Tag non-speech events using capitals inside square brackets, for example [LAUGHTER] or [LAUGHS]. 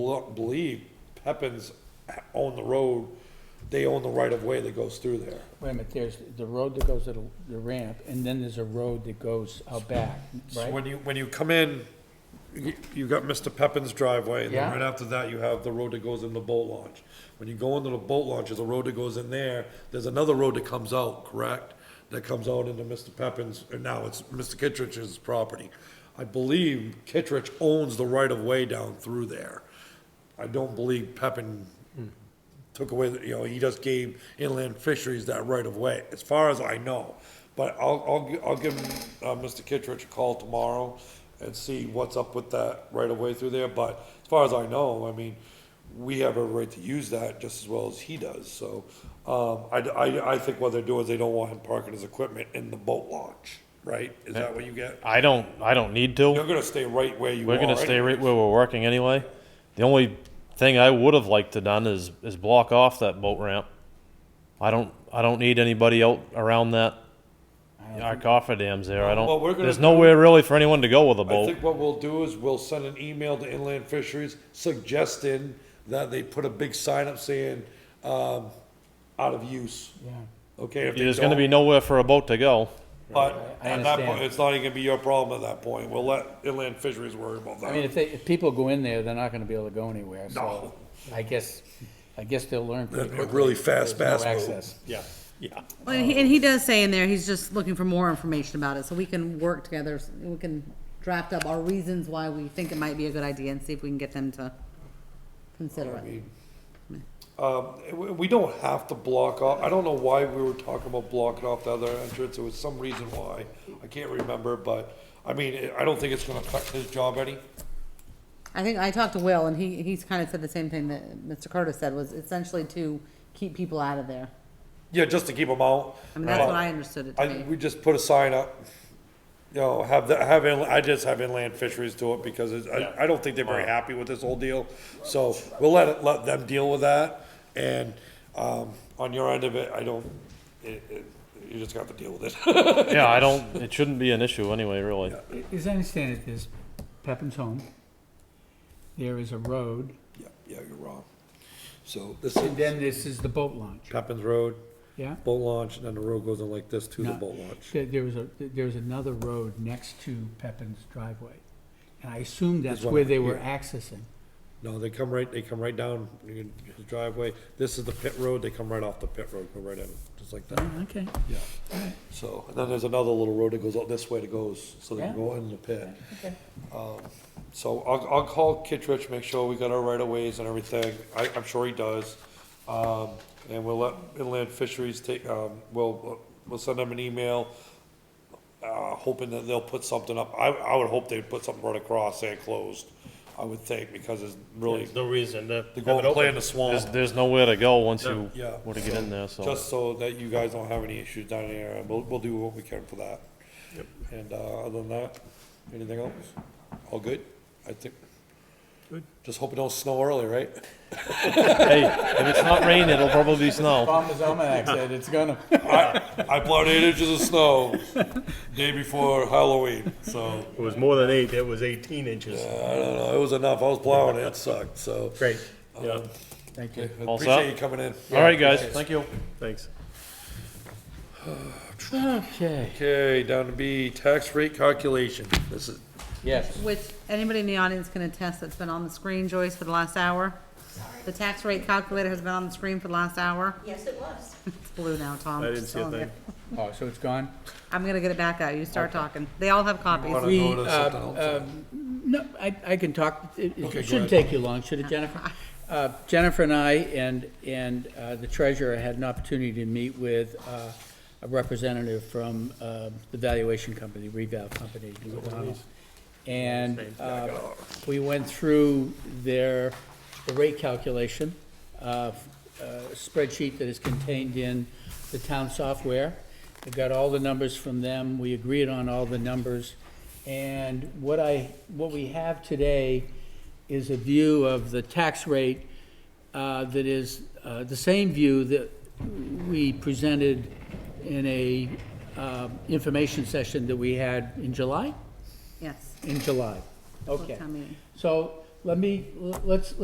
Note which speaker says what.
Speaker 1: bel- believe Pepin's own the road, they own the right of way that goes through there.
Speaker 2: Wait a minute, there's the road that goes to the- the ramp, and then there's a road that goes out back,
Speaker 1: So
Speaker 2: right?
Speaker 1: when you, when you come in, you, you got Mr. Pepin's driveway, and then
Speaker 2: Yeah.
Speaker 1: right after that, you have the road that goes in the boat launch. When you go into the boat launch, there's a road that goes in there, there's another road that comes out, correct? That comes out into Mr. Pepin's, and now it's Mr. Kittredge's property. I believe Kittredge owns the right of way down through there. I don't believe Pepin
Speaker 2: Hmm.
Speaker 1: took away, the- you know, he just gave inland fisheries that right of way, as far as I know. But I'll, I'll, gi- I'll give, uh, Mr. Kittredge a call tomorrow and see what's up with that right of way through there, but as far as I know, I mean, we have a right to use that just as well as he does, so, um, I, I, I think what they're doing is they don't want him parking his equipment in the boat launch, right? Is that what you get?
Speaker 3: I don't. I don't need to.
Speaker 1: You're gonna stay right where you are.
Speaker 3: we're gonna stay
Speaker 1: anyway.
Speaker 3: right where we're working anyway. The only thing I would have liked to done is is block off that boat ramp. I don't. I don't need anybody out around that. Our cofferdams there. I don't.
Speaker 1: Well, we're gonna
Speaker 3: there's
Speaker 1: do-
Speaker 3: nowhere really for anyone to go with a
Speaker 1: I
Speaker 3: boat.
Speaker 1: think what we'll do is we'll send an email to Inland Fisheries suggesting that they put a big sign up saying, um, out of use,
Speaker 2: Yeah.
Speaker 1: okay? if they
Speaker 3: There's gonna be
Speaker 1: don't,
Speaker 3: nowhere for a boat
Speaker 1: [LAUGHS]
Speaker 3: to go.
Speaker 1: But
Speaker 2: I
Speaker 1: at that point,
Speaker 2: understand.
Speaker 1: it's not even gonna be your problem at that point. We'll let Inland Fisheries worry about
Speaker 2: I mean,
Speaker 1: that.
Speaker 2: if they, if people go in there, they're not gonna be able to go anywhere,
Speaker 1: No.
Speaker 2: so I guess, I guess they'll learn pretty
Speaker 1: That'd be [LAUGHS] a
Speaker 2: quickly.
Speaker 1: really fast,
Speaker 2: There's
Speaker 1: fast
Speaker 2: no
Speaker 1: move.
Speaker 2: access.
Speaker 1: Yeah, yeah.
Speaker 4: Well, and he, and he does say in there, he's just looking for more information about it, so we can work together, we can draft up our reasons why we think it might be a good idea and see if we can get them to consider it.
Speaker 1: Um, we- we don't have to block off, I don't know why we were talking about blocking off the other entrance, there was some reason why, I can't remember, but, I mean, I don't think it's gonna affect his job any.
Speaker 4: I think, I talked to Will, and he, he's kind of said the same thing that Mr. Curtis said, was essentially to keep people out of there.
Speaker 1: Yeah, just to keep them out.
Speaker 4: I mean, that's what
Speaker 1: But-
Speaker 4: I understood it to
Speaker 1: I,
Speaker 4: be.
Speaker 1: we just put a sign up, you know, have the, have, inla- I just have inland fisheries do it because it's- I, I don't think they're very happy with this whole deal. So we'll let it, let them deal with that. And, um, on your end of it, I don't, it, it, you just got to deal with it. [LAUGHS]
Speaker 3: Yeah, I don't. It shouldn't be an issue anyway, really.
Speaker 2: As I understand it, there's Pepin's home, there is a road,
Speaker 1: Yeah, yeah, you're wrong. So this is
Speaker 2: and then this is the boat launch,
Speaker 1: Pepin's Road,
Speaker 2: yeah?
Speaker 1: boat launch, and then the road goes in like this to the
Speaker 2: No.
Speaker 1: boat launch.
Speaker 2: There, there was a, there was another road next to Pepin's driveway, and I assume that's
Speaker 1: one
Speaker 2: where
Speaker 1: over
Speaker 2: they were
Speaker 1: here.
Speaker 2: accessing.
Speaker 1: No, they come right, they come right down the driveway. This is the pit road, they come right off the pit road, go right in, just like that.
Speaker 2: Okay.
Speaker 1: Yeah. So, and then there's another little road that goes out this way that goes, so they can
Speaker 2: Yeah.
Speaker 1: go in the pit. Um, So I'll, I'll call Kittredge, make sure we got our right of ways and everything. I, I'm sure he does. Um, and we'll let Inland Fisheries take, um, we'll, we'll send them an email, uh, hoping that they'll put something up. I, I would hope they'd put something right across saying closed, I would think, because it's really,
Speaker 5: There's no reason to
Speaker 1: to
Speaker 5: have
Speaker 1: go
Speaker 5: it
Speaker 1: and play in
Speaker 5: open.
Speaker 1: the swamp.
Speaker 3: There's, there's nowhere to go once you
Speaker 1: Yeah.
Speaker 3: were to get in there. So
Speaker 1: Just so that you guys don't have any issues down here, and we'll, we'll do what we can for that.
Speaker 5: Yep.
Speaker 1: And, uh, other than that, anything else? All good, I think.
Speaker 5: Good.
Speaker 1: Just hope it don't snow early, right?
Speaker 3: hey, if it's not raining, it'll probably be snow.
Speaker 2: Farmer's Almanac said it's gonna.
Speaker 1: I, I plowed eight inches of [LAUGHS] snow day before Halloween, so,
Speaker 5: It was more than eight, it was eighteen inches.
Speaker 1: Uh, I don't know, it was enough, I was plowing, it sucked, so.
Speaker 5: Great, yeah,
Speaker 2: Thank you.
Speaker 1: I
Speaker 3: All set?
Speaker 1: Appreciate you coming in.
Speaker 3: All right, guys. Thank you.
Speaker 5: thanks.
Speaker 2: Okay.
Speaker 1: Okay, down to B, tax rate calculation, this is,
Speaker 2: Yes.
Speaker 4: Which, anybody in the audience can attest that's been on the screen, Joyce, for the last hour? The tax rate calculator has been on the screen for the last hour.
Speaker 6: Yes, it was.
Speaker 4: [LAUGHS] It's blue now, Tom.
Speaker 5: I
Speaker 4: I'm
Speaker 5: didn't
Speaker 4: just
Speaker 5: see a
Speaker 4: telling you.
Speaker 2: [LAUGHS]
Speaker 5: thing.
Speaker 2: Oh, so it's gone?
Speaker 4: I'm gonna get it back out, you start talking. They all have copies.
Speaker 1: wanna
Speaker 2: We,
Speaker 1: go to
Speaker 2: uh,
Speaker 1: something else?
Speaker 2: No, I, I can talk, it,
Speaker 1: Okay, go
Speaker 2: it shouldn't
Speaker 1: ahead.
Speaker 2: take you long, should it, Jennifer? Uh, Jennifer and I and, and uh, the treasurer had an opportunity to meet with uh, a representative from uh, the valuation company, Reval Company. McDonald. And uh, we went through their, the rate calculation, uh, uh, spreadsheet that is contained in the town software. I got all the numbers from them, we agreed on all the numbers. And what I, what we have today is a view of the tax rate uh, that is uh, the same view that we presented in a uh, information session that we had in July?
Speaker 4: Yes.
Speaker 2: In July, okay.
Speaker 4: town meeting.
Speaker 2: So let me, let's,